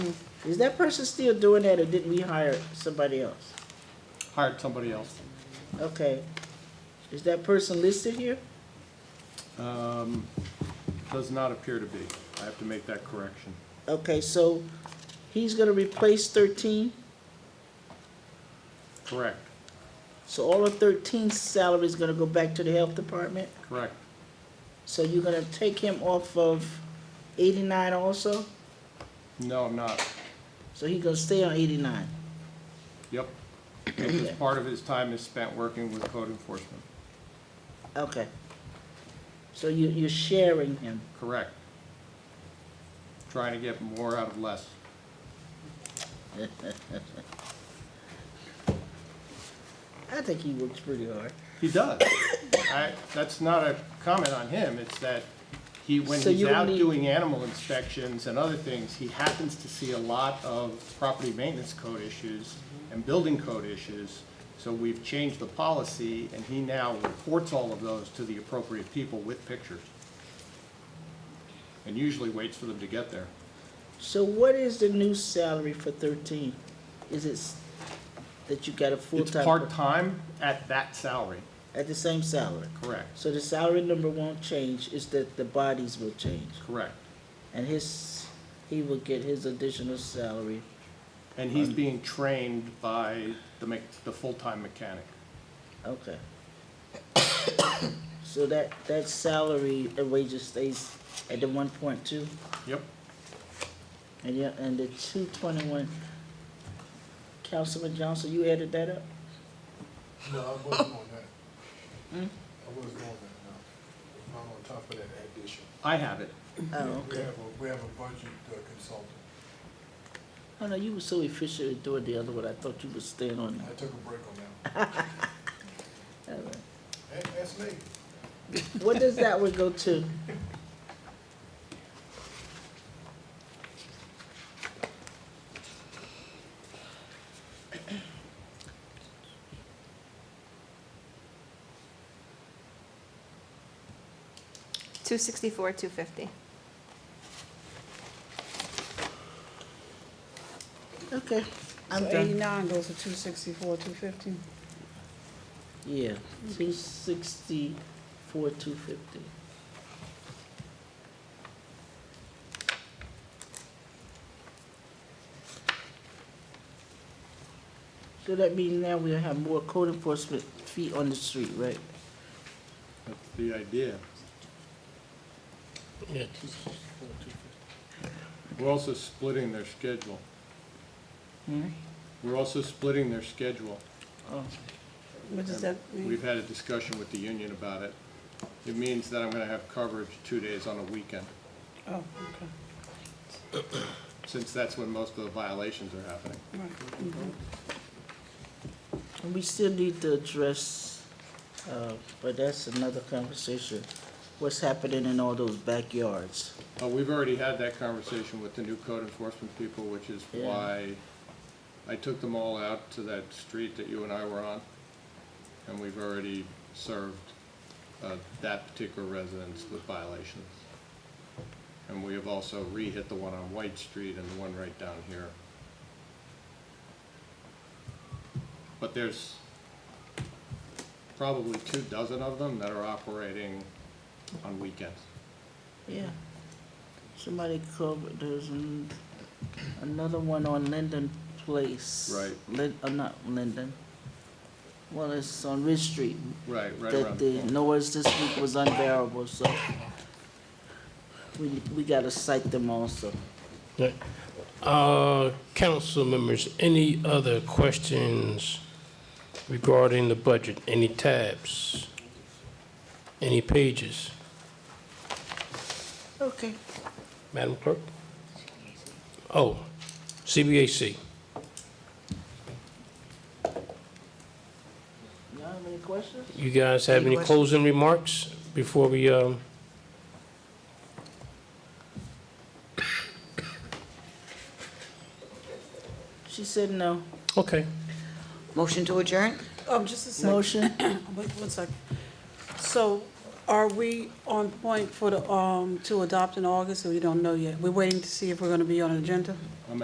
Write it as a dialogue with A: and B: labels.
A: Is that person still doing that or didn't we hire somebody else?
B: hired somebody else.
A: Okay. Is that person listed here?
B: Um, Does not appear to be. I have to make that correction.
A: Okay, so he's gonna replace thirteen,
B: Correct,
A: so all of 13's salary is gonna go back to the health department?
B: correct.
A: So you're gonna take him off of eighty-nine also?
B: No, I'm not.
A: So he gonna stay on eighty-nine?
B: Yep. Because part of his time is spent working with code enforcement.
A: Okay. So you, you're sharing him?
B: Correct. Trying to get more out of less.
A: I think he works pretty hard.
B: He does. I, that's not a comment on him, it's that he, when
A: So
B: he's
A: you
B: out
A: need-
B: doing animal inspections and other things, he happens to see a lot of property maintenance code issues and building code issues. So we've changed the policy, and he now reports all of those to the appropriate people with pictures. And usually waits for them to get there.
A: So what is the new salary for thirteen? Is it s- that you got a
B: It's
A: full-time?
B: part-time at that salary,
A: At the same salary?
B: correct,
A: So the salary number won't change, it's that the bodies will change.
B: correct.
A: And his, he will get his additional salary.
B: And he's being trained by the, mech- the full-time mechanic.
A: Okay. So that, that salary and wages stays at the one point two,
B: Yep.
A: and yeah, and the two twenty-one. Councilman Johnson, you added that up?
C: No, I wasn't on that. I wasn't on that, no. I'm on top of that addition.
B: I have it.
A: Oh,
C: We
A: okay.
C: have a, we have a budget uh, consultant.
A: Oh, no, you were so efficient at doing the other one, I thought you were staying on
C: I took a break on that.
A: that. All right.
C: That, that's me.
A: What does that one go to?
D: Two sixty-four, two fifty.
A: Okay, I'm
E: So
A: done.
E: eighty-nine goes to two sixty-four, two fifty.
A: Yeah, two sixty-four, two fifty. So that means now we'll have more code enforcement feet on the street, right?
B: That's the idea.
A: Yeah.
B: We're also splitting their schedule. We're also splitting their schedule.
E: What does that mean?
B: We've had a discussion with the union about it. It means that I'm gonna have coverage two days on a weekend,
E: Oh, okay,
B: since that's when most of the violations are happening.
E: right.
A: And we still need to address, uh, but that's another conversation, what's happening in all those backyards.
B: Uh, we've already had that conversation with the new code enforcement people, which is
A: Yeah.
B: why I took them all out to that street that you and I were on. And we've already served, uh, that particular residence with violations. And we have also re-hit the one on White Street and the one right down here. But there's probably two dozen of them that are operating on weekends.
A: Yeah. Somebody covered, there's an- another one on Linden Place.
B: Right.
A: Lin, uh, not Linden. Well, it's on Ridge Street.
B: Right, right
A: That
B: around the
A: the
B: corner.
A: noise this week was unbearable, so we, we gotta cite them also.
F: Right. Uh, Council members, any other questions regarding the budget? Any tabs? Any pages?
A: Okay.
F: Madam Clerk? Oh, CBAC.
A: Y'all have any questions?
F: You guys have any closing remarks before we, um,
A: She said no.
F: okay.
G: Motion to adjourn?
E: Oh, just a second,
A: Motion?
E: wait one second. So are we on point for the, um, to adopt in August, or we don't know yet? We're waiting to see if we're gonna be on an agenda?